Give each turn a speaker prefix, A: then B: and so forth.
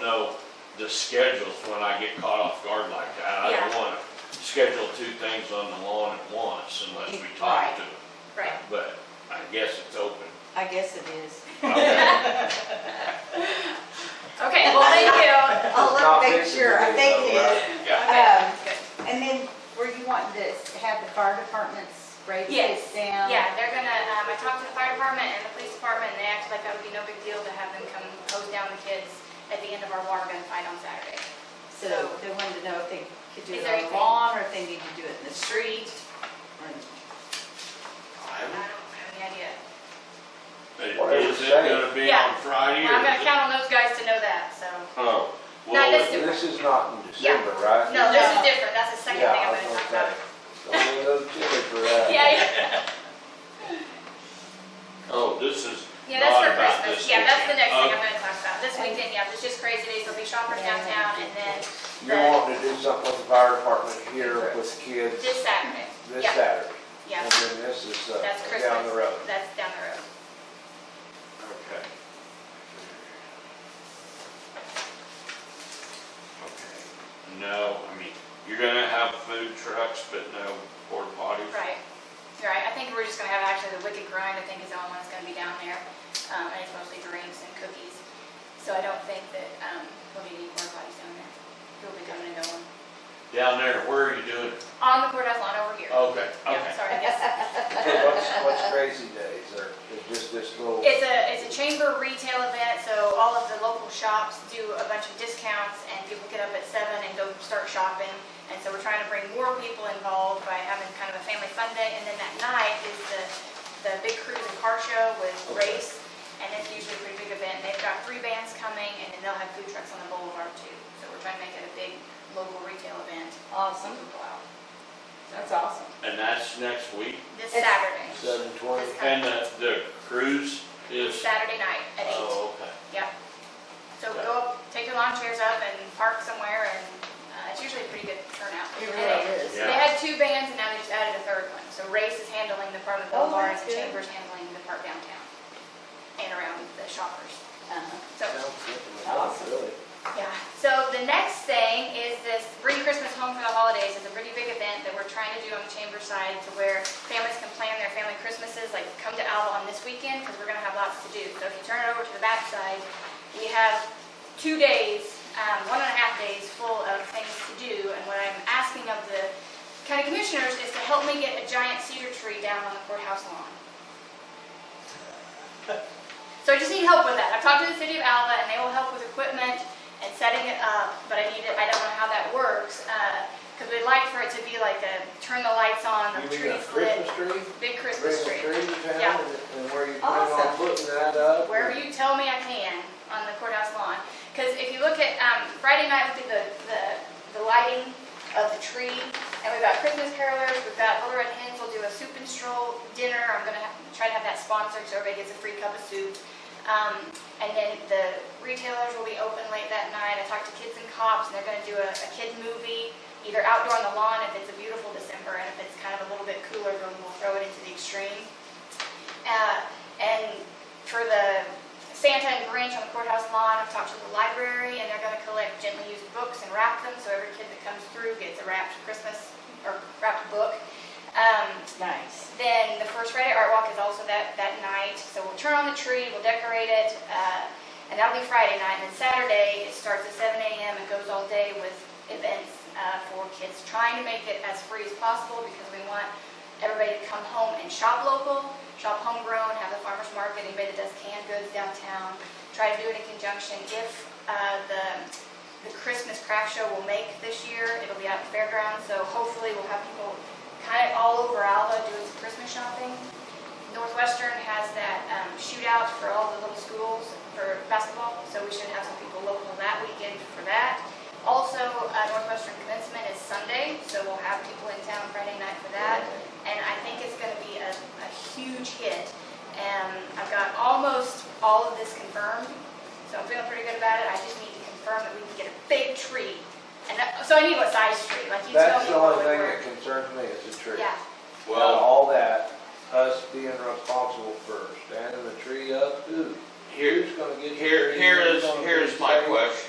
A: know the schedules when I get caught off guard like that. I don't
B: Yeah.
A: wanna schedule two things on the lawn at once unless we talk
C: Right.
A: to them,
B: Right.
A: but I guess it's open.
C: I guess it is.
A: Okay.
B: Okay, well, thank you.
C: I'll look,
D: Not
C: make
D: fixing
C: sure, I
D: it,
C: think
D: though,
C: it
D: right?
C: is.
A: Yeah,
B: Okay,
C: Um,
B: good.
C: And then, were you wanting to have the fire departments break
B: Yes,
C: this down?
B: Yeah, they're gonna, um, I talked to the fire department and the police department, and they acted like that would be no big deal to have them come hose down the kids at the end of our water gun fight on Saturday.
C: So
B: So-
C: they wanted to know if they could do
B: Is
C: it
B: there
C: on the
B: anything-
C: lawn, or if they need to do it in the street, or
B: I don't have any idea.
A: But
D: Whatever
A: is it
D: day.
A: gonna be on
B: Yeah.
A: Friday
B: Well, I'm
A: or
B: gonna
A: is it?
B: count on those guys to know that, so.
A: Oh,
B: Not
A: well,
B: this-
D: This is not in
B: Yeah.
D: December, right?
B: No, this is
C: No.
B: different, that's the second thing
D: Yeah,
B: I'm
D: I
B: gonna
D: was
B: talk
D: gonna
B: about.
D: say, Don't be a little chilly for that.
B: Yeah, yeah.
A: oh, this is
B: Yeah, that's
A: not
B: for
A: about
B: Christmas,
A: this
B: yeah, that's the
A: weekend.
B: next thing
D: Oh.
A: Okay.
B: I'm gonna talk about, this weekend, yeah, there's just crazy days, there'll be shoppers downtown, and then
D: You're wanting to do something with the fire department here with kids
B: this Saturday.
D: this
B: Yeah,
D: Saturday.
B: Yeah,
D: And then this is uh,
B: that's Christmas.
D: down the road.
B: That's down the road.
A: Okay. Okay. No, I mean, you're gonna have food trucks, but no porta potties?
B: Right, You're right. I think we're just gonna have actually the Wicked Grind, I think is the only one that's gonna be down there. Um, and it's mostly drinks and cookies. So I don't think that, um, we'll be any porta potties down there. People will be coming and going.
A: Down there, where are you doing? it?
B: On the courthouse lawn over here.
A: Okay, Oh,
B: Yeah,
A: okay.
B: sorry, yes.
D: What's, what's crazy days or is just this little?
B: It's a, it's a chamber retail event, so all of the local shops do a bunch of discounts and people get up at seven and go start shopping. And so we're trying to bring more people involved by having kind of a family fun day. And then that night is the, the big cruise and car show with
D: Okay.
B: race. And it's usually a pretty big event. They've got three bands coming and then they'll have food trucks on the boulevard too. So we're trying to make it a big local retail event.
C: awesome.
B: People out.
C: That's awesome.
A: And that's next week?
B: This
C: It's-
B: Saturday,
D: Seven twenty?
A: And the, the cruise is?
B: Saturday night at eight.
A: Oh, okay.
B: Yep. So go, take your lawn chairs up and park somewhere and uh, it's usually a pretty good turnout.
C: It
B: And
C: really
B: they-
C: is.
A: Yeah.
B: They had two bands and now they just added a third one. So Race is handling the part of the
C: Oh,
B: boulevard and
C: that's
B: the
C: good.
B: Chamber's handling the part downtown and around the shoppers.
C: Uh-huh.
B: So,
C: Awesome.
D: Really?
B: yeah. So the next thing is this Bring Christmas Home for the Holidays is a pretty big event that we're trying to do on the Chamber side to where families can plan their family Christmases, like come to Alba on this weekend because we're going to have lots to do. So if you turn it over to the back side, we have two days, um, one and a half days full of things to do. And what I'm asking of the county commissioners is to help me get a giant cedar tree down on the courthouse lawn. So I just need help with that. I've talked to the city of Alva and they will help with equipment and setting it up, but I need it, I don't know how that works. uh, Cause we'd like for it to be like a, turn the lights on, the
D: You mean a
B: trees lit,
D: Christmas tree?
B: big
D: Bring
B: Christmas tree.
D: the tree to
B: Yeah.
D: town and- and where you plan on
C: Awesome.
D: putting that up?
B: Wherever you tell me I can on the courthouse lawn. Because if you look at, um, Friday night, we did the, the, the lighting of the tree, and we've got Christmas carolers, we've got Little Red Hens, we'll do a soup and stroll dinner, I'm gonna have, try to have that sponsored, so everybody gets a free cup of soup. Um, and then the retailers will be open late that night, I talked to Kids and Cops, and they're gonna do a, a kid movie, either outdoor on the lawn if it's a beautiful December, and if it's kind of a little bit cooler, then we'll throw it into the extreme. Uh, and for the Santa and Grinch on the courthouse lawn, I've talked to the library, and they're gonna collect gently used books and wrap them, so every kid that comes through gets a wrapped Christmas, or wrapped book. Um,
C: Nice.
B: then the first Friday Art Walk is also that, that night, so we'll turn on the tree, we'll decorate it, uh, and that'll be Friday night, and then Saturday, it starts at seven AM and goes all day with events, uh, for kids, trying to make it as free as possible, because we want everybody to come home and shop local, shop homegrown, have the farmer's market, anybody that does canned goods downtown, try to do it in conjunction, if, uh, the, the Christmas craft show will make this year. It'll be out at the fairgrounds, so hopefully we'll have people kind of all over Alva doing some Christmas shopping. Northwestern has that um, shootout for all the little schools for basketball, so we should have some people local that weekend for that. Also, uh, Northwestern commencement is Sunday, so we'll have people in town Friday night for that. And I think it's going to be a, a huge hit. And I've got almost all of this confirmed, so I'm feeling pretty good about it. I just need to confirm that we can get a big tree. And that, so I need what size tree, like you tell
D: That's
B: me
D: the
B: what would
D: only thing that
B: work.
D: concerns me is the tree.
B: Yeah,
D: Now,
A: Well,
D: all that, us being responsible for standing the tree up, ooh,
A: here,
D: who's gonna get? the
A: here,
D: tree?
A: here
D: Who's
A: is,
D: gonna
A: here
D: get
A: is my
D: the-
A: question.